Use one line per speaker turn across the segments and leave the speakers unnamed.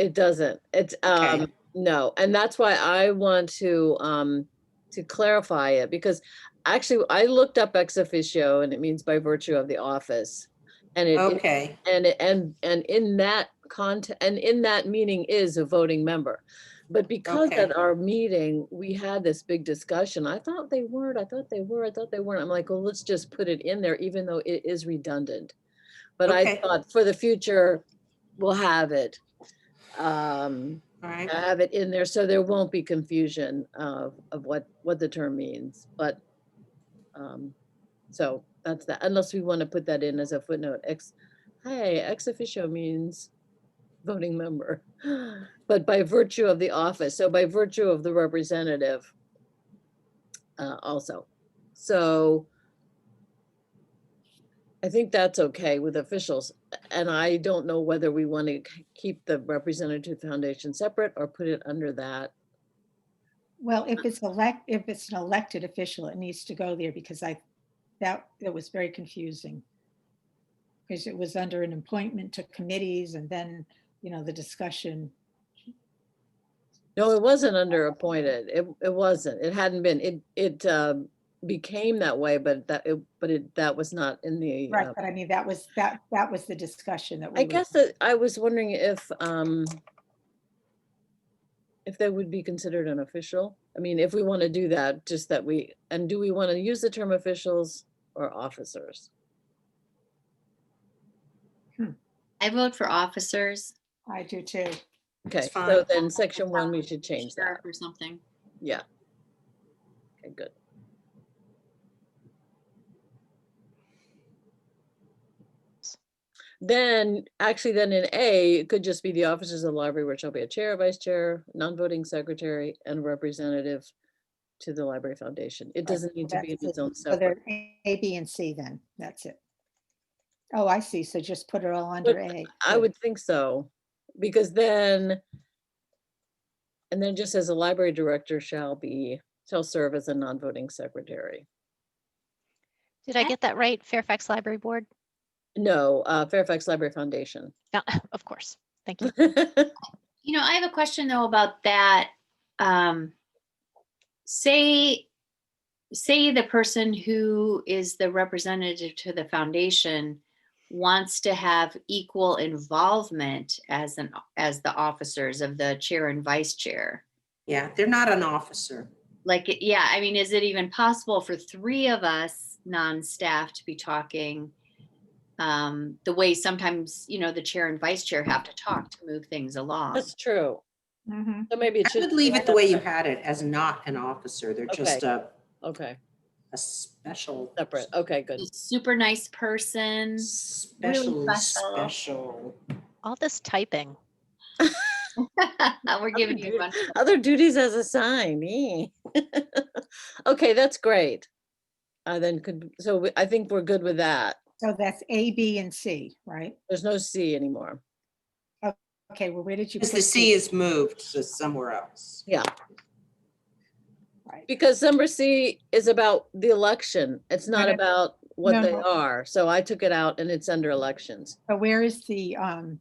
It doesn't. It's,
Okay.
um, no, and that's why I want to, um, to clarify it because actually I looked up ex officio and it means by virtue of the office. And it, it-
Okay,
and, it- and, and in that content, and in that meaning is a voting member. But because
Okay.
at our meeting, we had this big discussion, I thought they weren't, I thought they were, I thought they weren't. I'm like, well, let's just put it in there, even though it is redundant. But I
Okay.
thought for the future, we'll have it. Um,
all right.
have it in there so there won't be confusion of, of what, what the term means, but, um, so that's that, unless we want to put that in as a footnote, ex, hey, ex officio means voting member, but by virtue of the office, so by virtue of the representative, uh, also, so I think that's okay with officials, and I don't know whether we want to keep the representative foundation separate or put it under that.
Well, if it's elect, if it's an elected official, it needs to go there because I, that, that was very confusing. Because it was under an appointment to committees and then, you know, the discussion.
No, it wasn't under appointed. It, it wasn't. It hadn't been. It, it um, became that way, but that, it- but it, that was not in the.
Right,
uh,
but I mean, that was, that, that was the discussion that we.
I
were-
guess that I was wondering if, um, if they would be considered an official. I mean, if we want to do that, just that we, and do we want to use the term officials or officers?
I vote for officers,
I do too.
Okay, so
fine.
then section one, we should change that.
sheriff or something.
Yeah. Okay, good. Then, actually, then in A, it could just be the officers of the library, where shall be a chair, vice chair, non-voting secretary, and representative to the library foundation. It doesn't need to be in
That's
its
it.
own
So
separate.
there, A, B, and C then, that's it. Oh, I see, so just put it all under A.
I
good.
would think so, because then, and then just as a library director shall be, shall serve as a non-voting secretary.
Did I
Okay.
get that right? Fairfax Library Board?
No, uh, Fairfax Library Foundation.
No, of course. Thank you.
Right,
You know, I have a question though about that. Um, say, say the person who is the representative to the foundation wants to have equal involvement as an, as the officers of the chair and vice chair.
Yeah, they're not an officer.
Like, it- yeah, I mean, is it even possible for three of us non-staff to be talking? Um, the way sometimes, you know, the chair and vice chair have to talk to move things along.
That's true.
Mhm.
So maybe
I
it should.
would leave it the way you had it as not an officer. They're just a,
Okay,
a special.
separate. Okay, good.
A super nice person.
Special,
special.
special.
All this typing.
We're giving you
good.
one.
Other duties as assigned. eh. Okay, that's great. Uh, then could, so we- I think we're good with that.
So that's A, B, and C, right?
There's no C anymore.
Okay, well, where did you?
Because the
put
C is moved to somewhere else.
Right.
Because number C is about the election. It's not
no.
about what
No,
they
no.
are. So I took it out and it's under elections.
So where is the, um,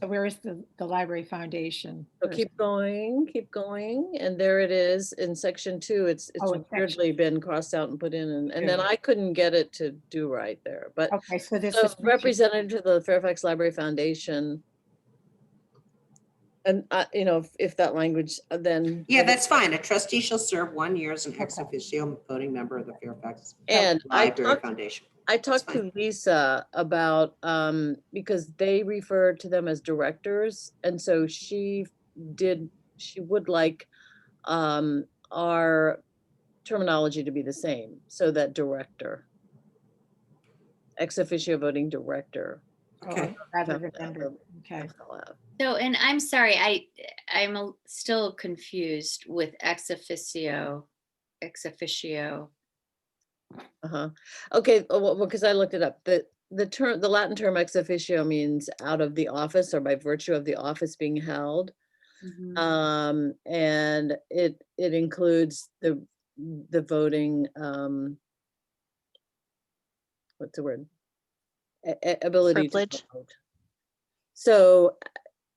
so where is the, the library foundation?
So
Where is-
keep going, keep going, and there it is in section two, it's, it's
Oh, in section-
weirdly been crossed out and put in, and, and then
Yeah.
I couldn't get it to do right there, but.
Okay, so this
So
is.
representative to the Fairfax Library Foundation. And, uh, you know, if- if that language, uh, then.
Yeah,
then-
that's fine. A trustee shall serve one year as an ex
Okay.
officio voting member of the Fairfax
And I
Library
talked,
Foundation.
I talked to
fine.
Lisa about, um, because they refer to them as directors, and so she did, she would like, um, our terminology to be the same, so that director. Ex officio voting director.
Okay.
Rather
Yeah,
than vendor, okay.
FLF.
So, and I'm sorry, I, I'm a- still confused with ex officio, ex officio.
Uh-huh. Okay, oh, well, because I looked it up. The, the term, the Latin term ex officio means out of the office or by virtue of the office being held.
Mhm.
Um, and it, it includes the, the voting, um, what's the word? A- a- Ability. to
Privilege.
vote. So